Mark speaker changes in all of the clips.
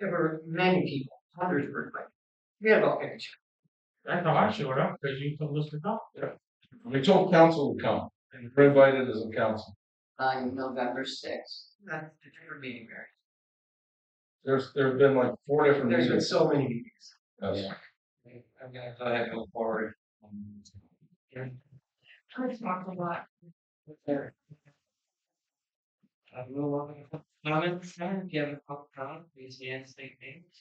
Speaker 1: there were many people, hundreds were like, we had all kinds.
Speaker 2: That's how I showed up, because you told us to come.
Speaker 3: We told council to come, and we're invited as a council.
Speaker 4: on November sixth.
Speaker 1: That's the different meeting, Mary.
Speaker 3: There's, there have been like four different
Speaker 1: There's been
Speaker 3: meetings.
Speaker 1: so many meetings.
Speaker 3: Yes.
Speaker 2: I'm gonna try to go forward. um, yeah.
Speaker 1: I've talked a lot.
Speaker 2: There. I will open up comments, now. if you have a public comment, please yes, state names.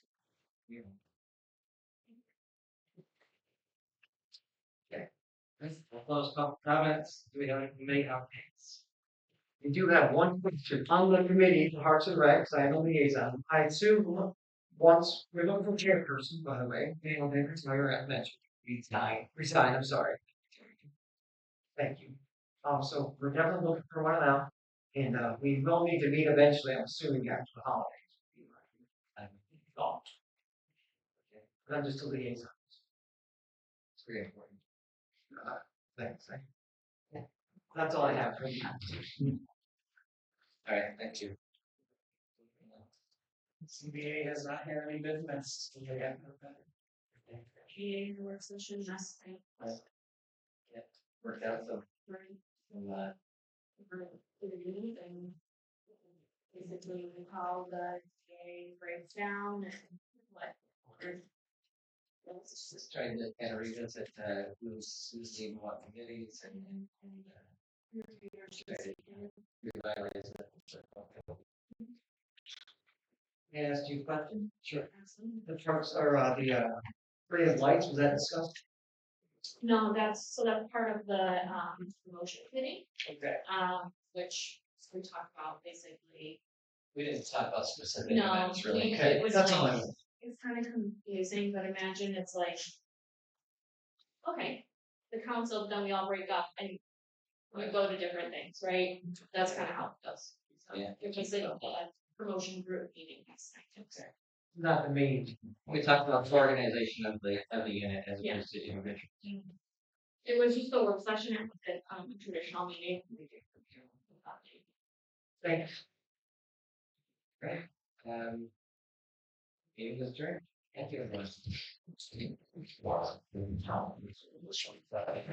Speaker 2: Yeah. Okay, this, we'll close public comments, do we have any committee updates?
Speaker 1: We do have one question on the committee, the Hearts and Recs, I am a liaison. I assume once, we're looking for chairperson, by the way, Daniel Davis, my mentioned. Resign. Resign, I'm sorry. Thank you. Um, so we're definitely looking for one now, and, uh, we will need to meet eventually, I'm assuming after the holidays. I thought. Okay, But I'm just a liaison. It's very important. Uh, Thanks. I- That's all I have for now.
Speaker 2: All right, thank you. CBA has not had any business, so they have no better.
Speaker 5: a work session last night.
Speaker 2: Worked out, so,
Speaker 5: right,
Speaker 2: so, uh,
Speaker 5: for the meeting and basically how the day breaks down and what. orders. That's just-
Speaker 2: just trying to kind of revisit, uh, who's, who's leading what committees and, and, and, uh, revitalize that.
Speaker 1: May I ask you a question? Sure.
Speaker 5: Absolutely.
Speaker 1: The trucks or uh, the uh, ray of lights, was that discussed?
Speaker 5: No, that's, so that's part of the, um, promotion committee,
Speaker 1: Okay.
Speaker 5: um, which we talked about basically.
Speaker 2: We didn't talk about specific
Speaker 5: No,
Speaker 2: events
Speaker 5: we-
Speaker 2: really.
Speaker 5: it was
Speaker 1: That's all I
Speaker 5: like,
Speaker 1: know.
Speaker 5: it's kind of confusing, but imagine it's like. Okay, the council, then we all break up and we go to different things, right? That's kind of how it goes. So
Speaker 2: Yeah.
Speaker 5: It was like a promotion group meeting next night.
Speaker 1: Not the main.
Speaker 2: We talked about the organization of the, of the unit as
Speaker 5: Yeah.
Speaker 2: opposed to individual.
Speaker 5: It was just a work session, it was a, um, traditional meeting. We did from here without the-
Speaker 1: Thanks.
Speaker 2: Um. Meeting is adjourned. Thank you, everyone.